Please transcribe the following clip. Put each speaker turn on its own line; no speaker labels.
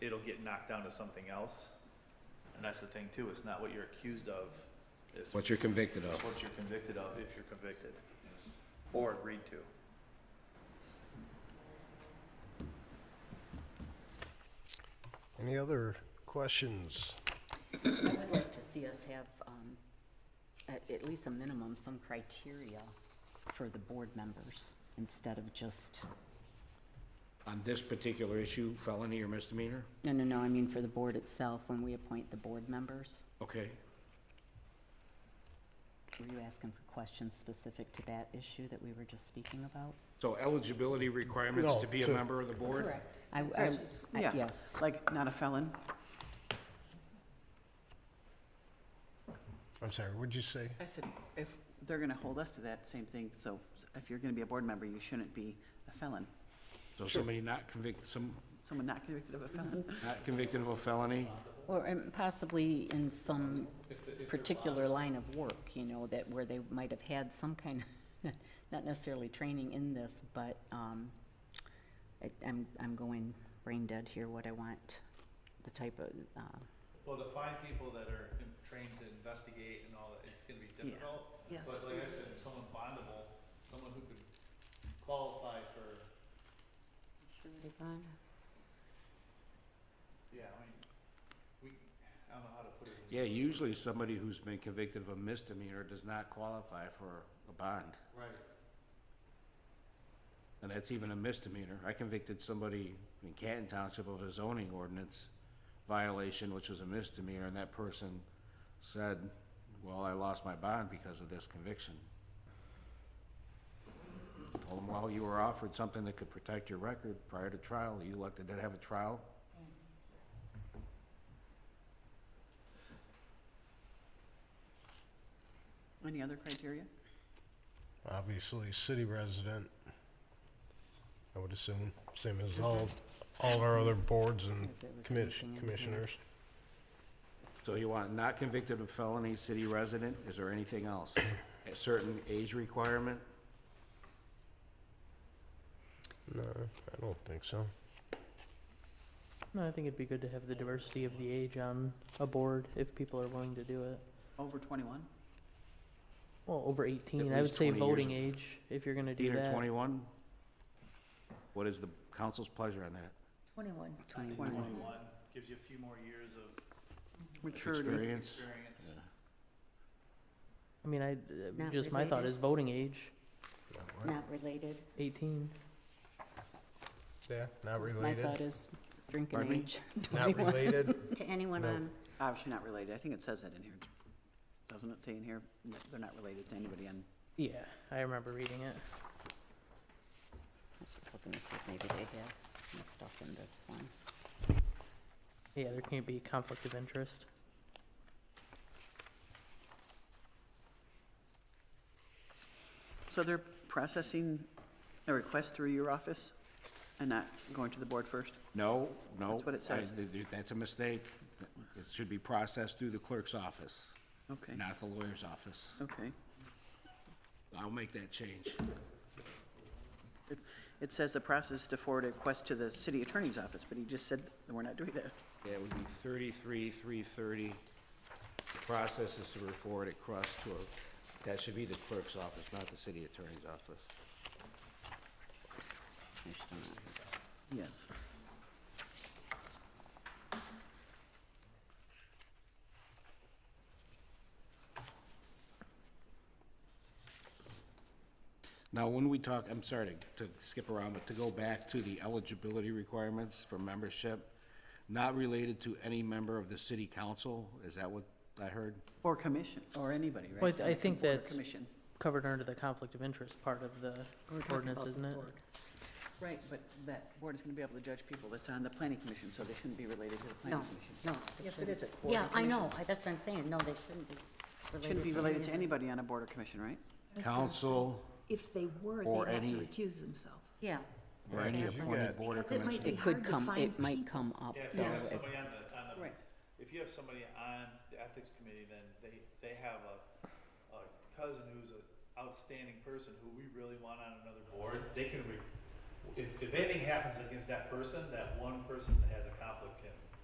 get knocked down to something else. And that's the thing too, it's not what you're accused of, it's
what you're convicted of.
what you're convicted of, if you're convicted, or agreed to.
Any other questions?
I would like to see us have, um, at, at least a minimum, some criteria for the board members instead of just,
On this particular issue, felony or misdemeanor?
no, no, no, I mean for the board itself, when we appoint the board members.
Okay.
Were you asking for questions specific to that issue that we were just speaking about?
So eligibility requirements to be a
No, to-
member of the board?
I,
That's
I,
right, she's-
I-
yeah.
yes,
Like, not a felon?
I'm sorry, what'd you say?
I said, if they're going to hold us to that same thing, so if you're going to be a board member, you shouldn't be a felon.
So somebody not convicted, some,
Someone not convicted of a felon.
not convicted of a felony?
or and possibly in some particular line of work, you know, that where they might have had some kind of, not necessarily training in this, but, um, I- I'm, I'm going brain dead here, what I want, the type of, uh,
Well, to find people that are in- trained to investigate and all that, it's gonna be
Yeah.
difficult.
Yes.
But like I said, if someone bondable, someone who could qualify for, yeah, I mean, we, I don't know how to put it. in-
Yeah, usually somebody who's been convicted of a misdemeanor does not qualify for a bond.
Right.
And that's even a misdemeanor. I convicted somebody in Canton Township of a zoning ordinance violation, which was a misdemeanor, and that person said, well, I lost my bond because of this conviction. Told him, well, you were offered something that could protect your record prior to trial. You elected to have a trial.
Any other criteria?
Obviously, city resident, I would assume, same as all, all our other boards and
If there was
commis-
anything in here.
commissioners.
So you want not convicted of felony, city resident? Is there anything else? A certain age requirement?
No, I don't think so.
No, I think it'd be good to have the diversity of the age on a board if people are willing to do it.
Over 21?
Well, over eighteen,
At
I would
least
say
20 years
voting
of-
age, if you're gonna do
Eighteen or
that.
twenty-one? What is the council's pleasure on that?
Twenty-one. Twenty-one.
Twenty-one gives you a few more years of
Maturity.
Experience?
experience.
I mean, I, uh,
Not
just my thought
related.
is voting age,
Not related.
eighteen.
Yeah, not
My
related.
thought is drinking
Pardon me?
age.
Not
21.
related?
To anyone
No.
on,
Obviously not related. I think it says that in here. Doesn't it say in here? that They're not related to anybody on,
Yeah, I remember reading it.
I was just looking to see if maybe they have some stuff in this one.
Yeah, there can't be conflict of interest.
so they're processing a request through your office and not going to the board first?
No, no.
That's what it
I-
says.
th- th- That's a mistake. It should be processed through the clerk's office,
Okay,
not the lawyer's office.
okay.
I'll make that change.
It- It says the process to forward a request to the city attorney's office, but he just said that we're not doing that.
Yeah, it would be thirty-three, three thirty. The process is to forward it across to a, that should be the clerk's office, not the city attorney's office.
I should not-
Yes.
Now, when we talk, I'm sorry to, to skip around, but to go back to the eligibility requirements for membership, not related to any member of the city council, is that what I heard?
Or commission, or anybody, right?
Well, I th- I
Like a
think
board or
that's-
Commission.
Covered under the conflict of interest part of the ordinance, isn't it?
Right, but that board is going to be able to judge people that's on the planning commission, so they shouldn't be related to the planning
No,
commission.
no.
Yes, it
shouldn't.
is. It's board
Yeah,
and
I
commission.
know, I- that's what I'm saying, no, they shouldn't be related to.
Shouldn't be related to
anything.
anybody on a board or commission, right?
Council
If they were,
Or
they'd have to
any-
recuse themselves.
Yeah.
or any
Exactly.
appointed board or
Because it
commission.
might be
It could
hard to
come,
find
it might
people.
come up.
Yeah, if you
though.
have somebody on the, on the,
Right.
if you have somebody on the ethics committee, then they, they have a, a cousin who's an outstanding person who we really want on another board, they can re, if, if anything happens against that person, that one person that has a conflict can